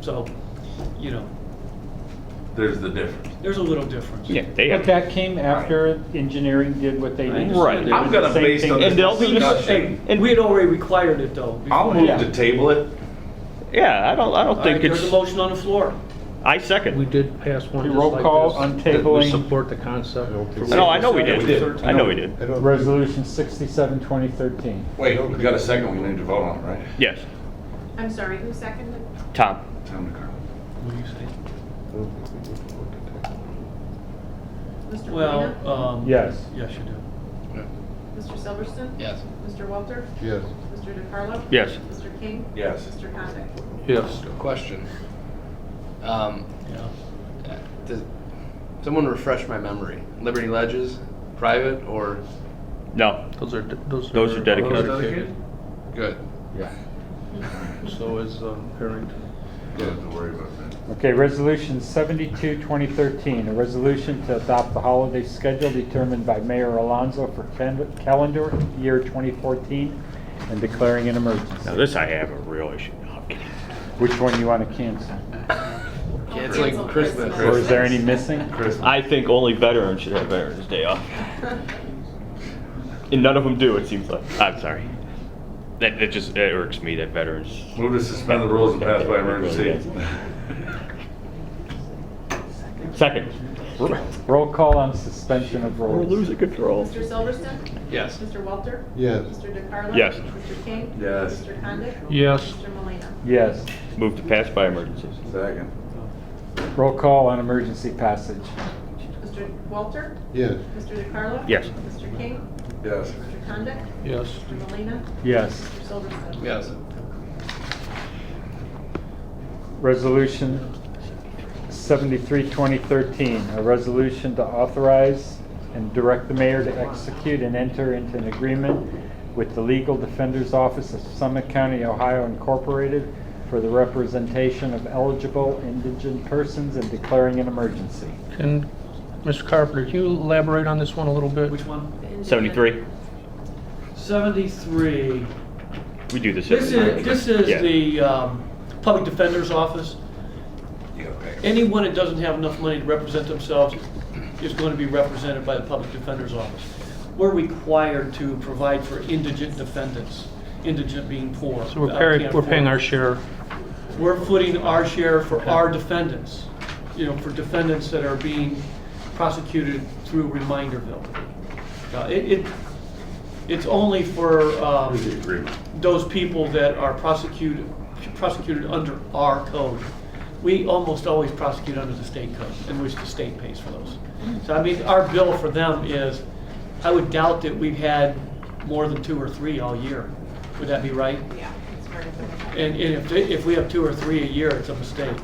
So, you know, There's the difference. there's a little difference. Yeah, they But have. that came after engineering did what they I did. Right. They I'm did the gonna same base thing. on And they'll this be- discussion. And we had already required it though. I'll before. move Yeah. to table it. Yeah, I don't, I All don't right, think there's a it's, motion on the floor. I We second. did pass one We just roll like call this on that would tabling. Support the concept. No, I know we did. did. I know we did. Resolution sixty-seven, twenty thirteen. Wait, we got a second, we need to vote on it, right? Yes, I'm sorry, who seconded? Tom. Tom DeCarlo. What do you say? Mr. Well, Polina? um. Yes. Yes, you do. Mr. Silverston? Yes. Mr. Walter? Yes. Mr. DeCarlo? Yes. Mr. King? Yes. Mr. Condit? Yes. Question. Um, Yeah. uh, does, someone refresh my memory. Liberty Ledges, private or No, Those are, de- those are. Those are dedicated. good? Yeah. So is um, Harrington. Don't have to worry about that. Okay, resolution seventy-two, twenty thirteen, a resolution to adopt the holiday schedule determined by Mayor Alonso for cal- calendar year twenty fourteen and declaring an now emergency. this I have a real issue. No, I'm kidding. Which one you want to cancel? I'll It's like cancel Christmas. Or is there any missing? Christmas. I think only veterans should have Veterans Day off. And none of them do, it seems like. I'm sorry. That, that just, it irks me that veterans. Move to suspend the rules and pass by emergency. Second. Roll call on suspension of rules. control. Mr. Silverston? Yes. Mr. Walter? Yes. Mr. DeCarlo? Yes. Mr. King? Yes. Mr. Condit? Yes. Mr. Molina. Yes. Move to pass by emergencies. Second. Roll call on emergency passage. Mr. Walter? Yes. Mr. DeCarlo? Yes. Mr. King? Yes. Mr. Condit? Yes. Mr. Molina. Yes. Mr. Silverston? Yes. Resolution 73, 2013, a resolution to authorize and direct the mayor to execute and enter into an agreement with the Legal Defender's Office of Summit County, Ohio Incorporated for the representation of eligible indigent persons and declaring an emergency. And Mr. Carpenter, can you elaborate on this one a little bit? Which one? Seventy-three? Seventy-three. We do the This seventy-three. is, this is Yeah. the, um, Public Defender's Office. You gotta pay. Anyone that doesn't have enough money to represent themselves is going to be represented by the Public Defender's Office. We're required to provide for indigent defendants, indigent being poor. So we're uh, paying, can't we're paying our afford. share. We're footing our share for our defendants, you know, for defendants that are being prosecuted through Reminderville. Uh, It, it, it's only for, um, Here's the agreement. those people that are prosecuted, prosecuted under our code. We almost always prosecute under the state code, in which the state pays for those. So I mean, our bill for them is, I would doubt that we've had more than two or three all year. Would that be right? Yeah. it's very good. And, and if, they- if we have two or three a year, it's a mistake.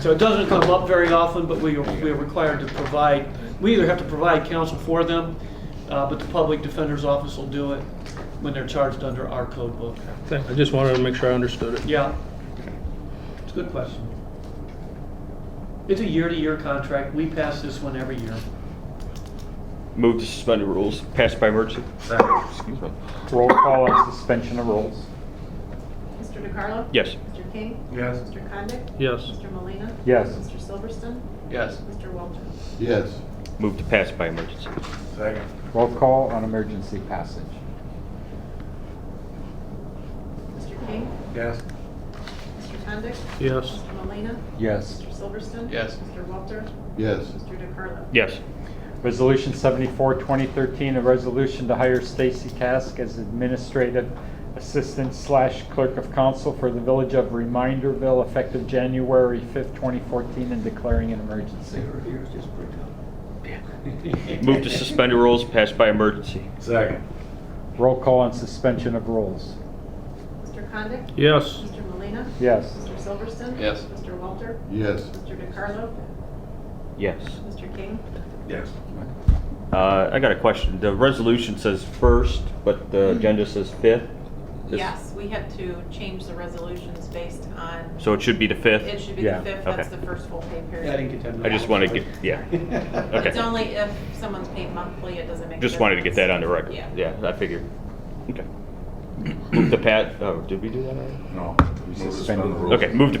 So it doesn't come up very often, but we, are- we are required to provide, we either have to provide counsel for them, uh, but the public defender's office will do it when they're charged under our code book. Thank- I just wanted to make sure I understood it. Yeah. It's a good question. It's a year-to-year contract. We pass this one every year. Move to suspend the rules, pass by emergency. Second. Excuse me. Roll call on suspension of rules. Mr. DeCarlo? Yes. Mr. King? Yes. Mr. Condit? Yes. Mr. Molina. Yes. Mr. Silverston? Yes. Mr. Walter? Yes. Move to pass by emergency. Second. Roll call on emergency passage. Mr. King? Yes. Mr. Condit? Yes. Mr. Molina. Yes. Mr. Silverston? Yes. Mr. Walter? Yes. Mr. DeCarlo? Yes. Resolution 74, 2013, a resolution to hire Stacy Task as administrative assistant slash clerk of council for the village of Reminderville effective January 5th, 2014, and declaring an emergency. Move to suspend the rules, pass by emergency. Second. Roll call on suspension of rules. Mr. Condit? Yes. Mr. Molina. Yes. Mr. Silverston? Yes. Mr. Walter? Yes. Mr. DeCarlo? Yes. Mr. King? Yes. Uh, I got a question. The resolution says first, but the agenda says fifth? This- Mm-hmm. Yes, we had to change the resolutions based on, So it should be the it fifth? should be the Yeah, fifth, that's okay. the first full pay Yeah, I didn't period. get that. I just wanted to get, yeah. Okay. It's only if someone's paid monthly, it doesn't make a Just wanted to get that on the record. difference. Yeah. I figured. Okay. Move to pass, oh, did we do that already? No. We Move to suspended the the rules. Okay, move to